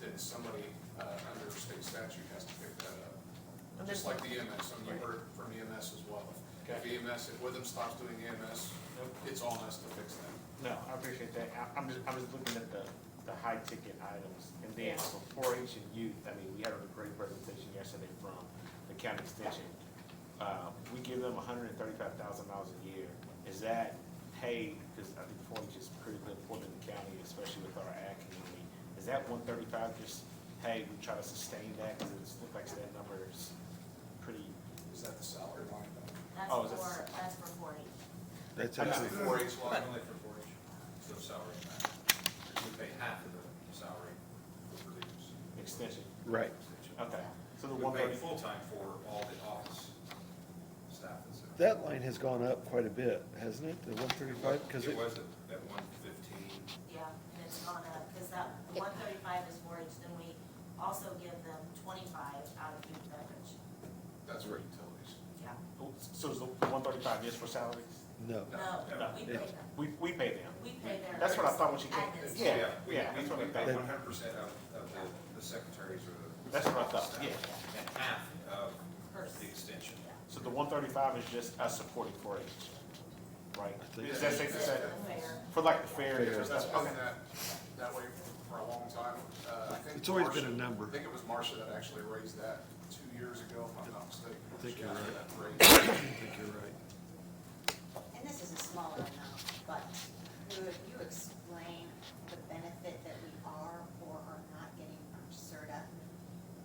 then somebody, uh, under state statute has to pick that up. And Just there's- like the E EMS, I mean, you heard from EMS as well. If Okay. EMS, if Witham stops doing EMS, Nope. it's on us to fix that. No, I appreciate that. I, I'm just, I was looking at the, the high ticket items. And then for 4-H and youth, I mean, we had a great presentation yesterday from the county extension. Uh, we give them hundred and thirty-five thousand dollars a year. Is that paid, because I think 4-H is critically important to the county, especially with our ag community. Is that one thirty-five just, hey, we try to sustain that, because it's, looks like that number is pretty, Is that the salary line? That's Oh, is this- for, that's for forty. That's I know. actually, Four H line? Only for four H, so salary match. We pay half of the salary for leaders. extension? right, Okay, so the We one pay thirty, full-time for all the office staff that's there. that line has gone up quite a bit, hasn't it, the one thirty-five, because it, It was at- at one fifteen, Yeah, and it's gone up, because that one thirty-five is four H, then we also give them twenty-five out of food and beverage. That's for utilities. Yeah, so is the one thirty-five just for salaries? no, no, no, we no. pay them, We, we pay them. we pay their. That's what I thought when she came. Admin. Yeah, we, yeah, we that's what I we pay thought. one hundred percent of, of the, the secretaries or the. That's what I thought, staff, yeah. And half Per- of the extension. yeah. So the one thirty-five is just us supporting four H, right? think Is that safe to say? Fair. For like the fair. Fair. Because that's been Okay. that, that way for a long time. Uh, I think It's always been a Marcia- number. I think it was Marcia that actually raised that two years ago, if I'm not mistaken. I think She you're asked right. for that raise. I think you're right. And this is a smaller amount, but would you explain the benefit that we are or are not getting from CERTA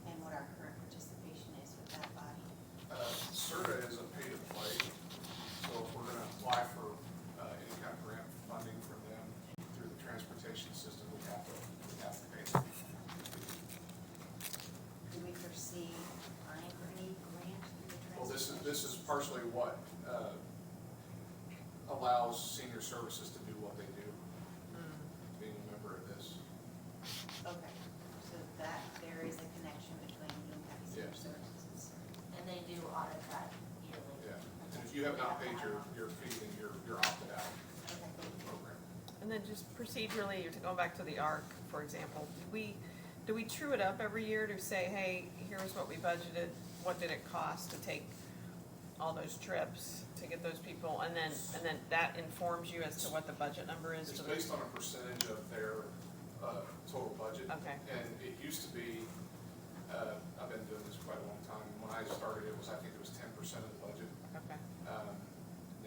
and what our current participation is with that body? Uh, CERTA is a pay-to-play, so if we're gonna apply for, uh, any kind of grant funding from them through the transportation system, we have to, we have to pay them. Do we foresee applying for any grant through the Well, this is, transportation? this is partially what, uh, allows senior services to do what they do, being a member of this. Okay, so that, there is a connection between Boone County Senior Yes. Services and CERTA. And they do audit that yearly. Yeah, and if you have not paid your, your fee, then you're, you're opted out of Okay. the program. And then just procedurally, you're going back to the ARC, for example, do we, do we true it up every year to say, hey, here's what we budgeted, what did it cost to take all those trips to get those people, and then, and then that informs you as to what the budget number is It's for those? based on a percentage of their, uh, total budget. Okay. And it used to be, uh, I've been doing this quite a long time, when I started, it was, I think it was ten percent of the budget. Okay, Um,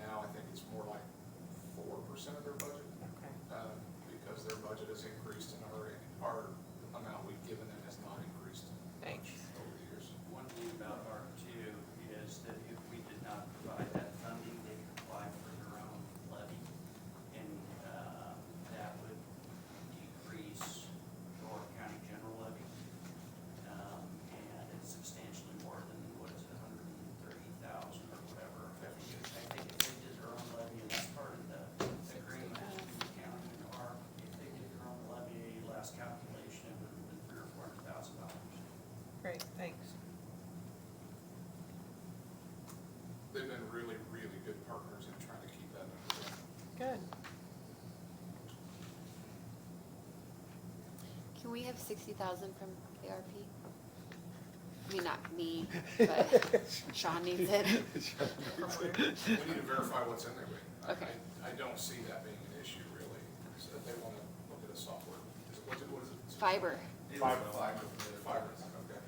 now I think it's more like four percent of their budget, okay. um, because their budget has increased and our, our amount we've given them has not increased much Thanks. over the years. One thing about ARC two is that if we did not provide that funding, they could apply for their own levy. And, uh, that would decrease our county general levy. Um, and it's substantially more than, what is it, hundred and thirty thousand or whatever. I think, it- I think if they did their own levy, and that's part of the agreement between the county and ARC, if they did their own levy, last calculation, it would have been three or four hundred thousand dollars. Great, thanks. They've been really, really good partners in trying to keep that under control. Good. Can we have sixty thousand from ARP? I mean, not me, but Sean needs it. We need to verify what's in there, but I, Okay. I- I don't see that being an issue really, so if they wanna look at a software, is it, what is it- what is it? Fiber. It was Fiber. Fiber, fiber, okay.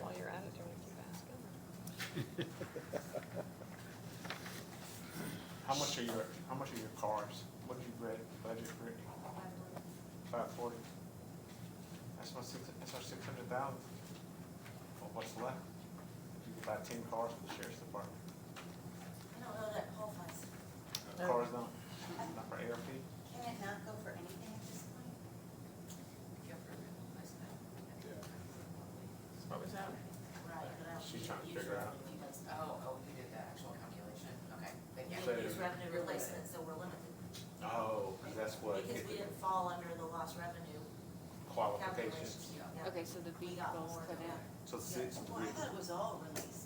While you're at it, do you want to keep asking? How much are your, how much are your cars? What did you bud- budget for? Five forty? That's my six, that's our six hundred thousand. What's left? You could buy ten cars for the sheriff's department. I don't know that qualifies. No. Cars don't, not for ARP? Can it not go for anything at this point? What was that? Right, but I don't She's think trying to usually figure out. he does that. Oh, oh, you did the actual calculation, okay, but yeah. We use revenue replacement, so we're limited, Oh, 'cause that's what because we didn't fall under the lost revenue qualifications. calculation. Yeah. Okay, so the We got vehicles more put than in. that. So six, Well, I thought it was all released. Uh-huh.